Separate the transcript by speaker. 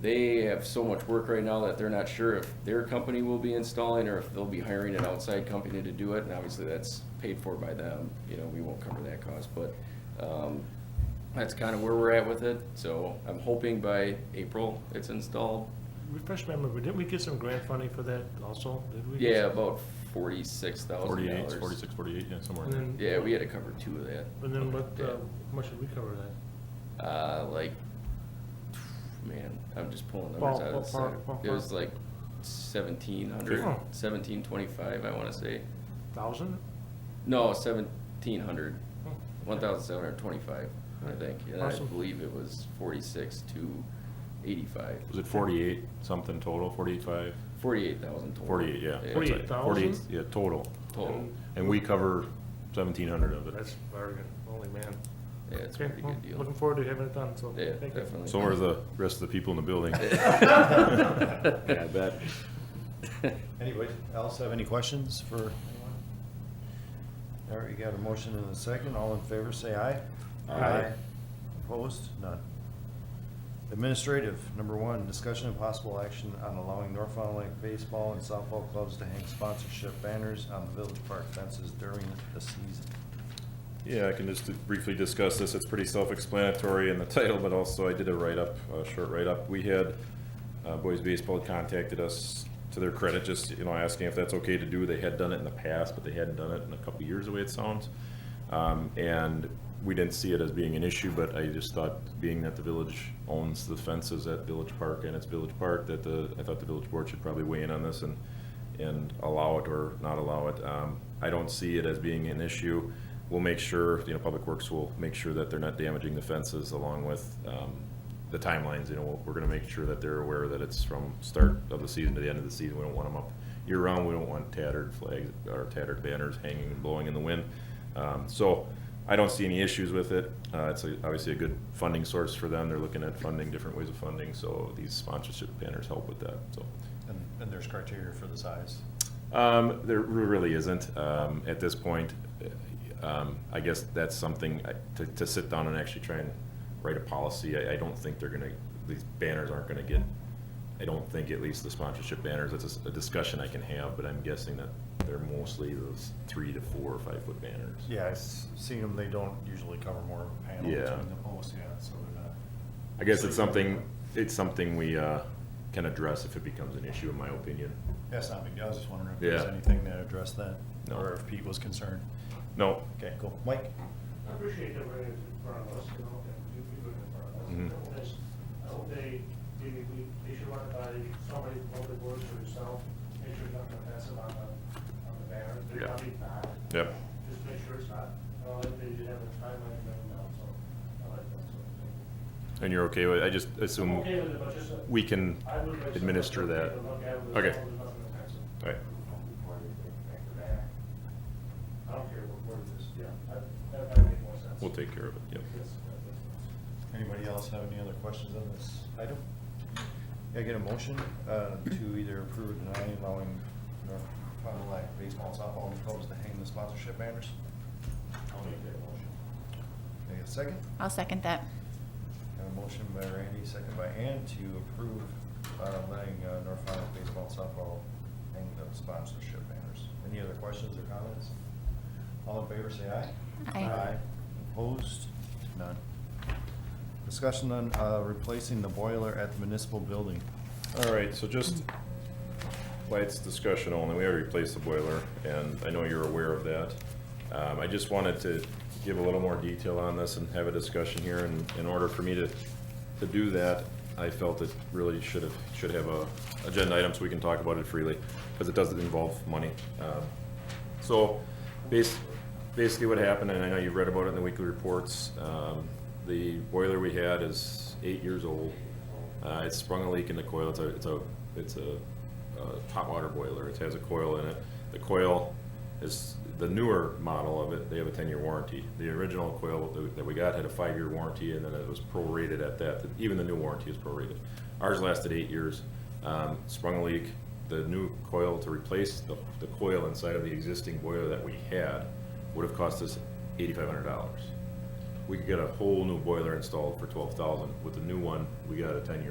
Speaker 1: they have so much work right now that they're not sure if their company will be installing or if they'll be hiring an outside company to do it, and obviously that's paid for by them, you know, we won't cover that cost, but, um, that's kind of where we're at with it, so I'm hoping by April it's installed.
Speaker 2: Refresh my memory, didn't we get some grant funding for that also? Did we? get
Speaker 1: Yeah,
Speaker 2: some?
Speaker 1: about forty-six thousand
Speaker 3: Forty-eight,
Speaker 1: dollars.
Speaker 3: forty-six, forty-eight, yeah, somewhere. in
Speaker 2: And
Speaker 3: there.
Speaker 2: then.
Speaker 1: Yeah, we had to cover two of that.
Speaker 2: And then what,
Speaker 1: Yeah.
Speaker 2: uh, how much did we cover that?
Speaker 1: Uh, like, man, I'm just pulling numbers
Speaker 2: Ball-
Speaker 1: out of the
Speaker 2: ballpark,
Speaker 1: center. It
Speaker 2: ballpark.
Speaker 1: was like seventeen hundred,
Speaker 2: Oh.
Speaker 1: seventeen twenty-five, I wanna say.
Speaker 2: Thousand?
Speaker 1: No, seventeen hundred,
Speaker 2: Oh,
Speaker 1: one thousand seven hundred twenty-five, I
Speaker 2: Right.
Speaker 1: think. And I
Speaker 2: Awesome.
Speaker 1: believe it was forty-six to eighty-five.
Speaker 3: Was it forty-eight something total, forty-eight-five?
Speaker 1: Forty-eight thousand total.
Speaker 3: Forty-eight, yeah. that's right.
Speaker 2: 48,000?
Speaker 3: Forty-eight, yeah, total.
Speaker 1: Total.
Speaker 3: And we cover seventeen hundred of it.
Speaker 2: That's bargain, holy man.
Speaker 1: Yeah, it's a
Speaker 2: Okay,
Speaker 1: pretty
Speaker 2: well,
Speaker 1: good deal.
Speaker 2: Looking forward to having it done, so.
Speaker 1: Yeah,
Speaker 2: thank you.
Speaker 1: definitely.
Speaker 3: So are the rest of the people in the building.
Speaker 1: Yeah,
Speaker 3: I bet.
Speaker 4: Anybody else have any questions for anyone? All right, we got a motion and a second. All in favor, say aye.
Speaker 3: Aye.
Speaker 4: Opposed? None. Administrative, number one, discussion of possible action on allowing Northbound Lake baseball and softball clubs to hang sponsorship banners on the village park fences during the season.
Speaker 3: Yeah, I can just briefly discuss this. It's pretty self-explanatory in the title, but also I did a write-up, a short write-up. We had, uh, boys baseball had contacted us, to their credit, just, you know, asking if that's okay to do. They had done it in the past, but they hadn't done it in a couple years, the way it sounds. Um, and we didn't see it as being an issue, but I just thought, being that the village owns the fences at Village Park and it's Village Park, that the, I thought the village board should probably weigh in on this and, and allow it or not allow it. Um, I don't see it as being an issue. We'll make sure, you know, Public Works will make sure that they're not damaging the fences along with, um, the timelines, you know, we're gonna make sure that they're aware that it's from start of the season to the end of the season. We don't want them up year-round. We don't want tattered flags or tattered banners hanging and blowing in the wind. Um, so I don't see any issues with it. Uh, it's a- obviously a good funding source for them. They're looking at funding, different ways of funding, so these sponsorship banners help with that, so.
Speaker 4: And, and there's criteria for the size.
Speaker 3: Um, there really isn't, um, at this point. Um, I guess that's something, I- to, to sit down and actually try and write a policy, I, I don't think they're gonna, these banners aren't gonna get, I don't think at least the sponsorship banners, it's a s- a discussion I can have, but I'm guessing that they're mostly those three to four or five foot banners.
Speaker 4: Yeah, I've seen them. They don't usually cover more of a panel
Speaker 3: Yeah.
Speaker 4: between the posts, yeah, so they're not.
Speaker 3: I guess it's something, it's something we, uh, can address if it becomes an issue, in my opinion.
Speaker 4: That's not a big deal. I was just wondering if there's
Speaker 3: Yeah.
Speaker 4: anything that addressed that,
Speaker 3: No.
Speaker 4: or if Pete was concerned.
Speaker 3: No,
Speaker 4: Okay, cool. Mike?
Speaker 5: I appreciate that way in front of us, you know, and you can do it in front of us.
Speaker 3: Mhm.
Speaker 5: I hope that's- I hope they, maybe we, they should run it by somebody from Public Works or yourself, make sure nothing offensive on the, on the banner,
Speaker 3: Yeah.
Speaker 5: they're probably not.
Speaker 3: Yep.
Speaker 5: Just make sure it's not, uh, like they did have a timeline right now, so I like that sort of thing.
Speaker 3: and you're okay with, I just
Speaker 5: I'm
Speaker 3: assume
Speaker 5: okay with it, but just, uh,
Speaker 3: we can
Speaker 5: I would like.
Speaker 3: administer
Speaker 5: somebody
Speaker 3: that.
Speaker 5: to Look at it, as
Speaker 3: Okay.
Speaker 5: long as nothing offensive.
Speaker 3: All right.
Speaker 5: I don't care what word it is, yeah, that, that might make more sense.
Speaker 3: We'll take care of it, yep.
Speaker 5: Yes, that makes sense.
Speaker 4: Anybody else have any other questions on this item? Can I get a motion uh, to either approve or deny allowing North Fond du Lac baseball and softball clubs to hang the sponsorship banners? I'll make that motion. Can I get a second?
Speaker 6: I'll second that.
Speaker 4: Got a motion by Randy, second by Ann to approve uh, letting uh, North Fond du Lac baseball and softball hang the sponsorship banners. Any other questions or comments? All in favor, say aye.
Speaker 6: Aye.
Speaker 4: Opposed? None. Discussion on uh, replacing the boiler at the municipal building.
Speaker 3: All right, so just, why it's discussion only, we already replaced the boiler, and I know you're aware of that. Um, I just wanted to give a little more detail on this and have a discussion here, and in order for me to, to do that, I felt it really should have, should have a agenda item so we can talk about it freely, because it doesn't involve money. Um, So, bas- basically what happened, and I know you've read about it in the weekly reports, um, the boiler we had is eight years old. Uh, it sprung a leak in the coil. It's a, it's a, it's a, uh hot water boiler. It has a coil in it. The coil is the newer model of it. They have a ten-year warranty. The original coil that we- that we got had a five-year warranty, and then it was prorated at that. Even the new warranty is prorated. Ours lasted eight years. Um, sprung a leak. The new coil to replace the, the coil inside of the existing boiler that we had would have cost us eighty-five hundred dollars we could get a whole new boiler installed for twelve thousand. With the new one, we got a ten-year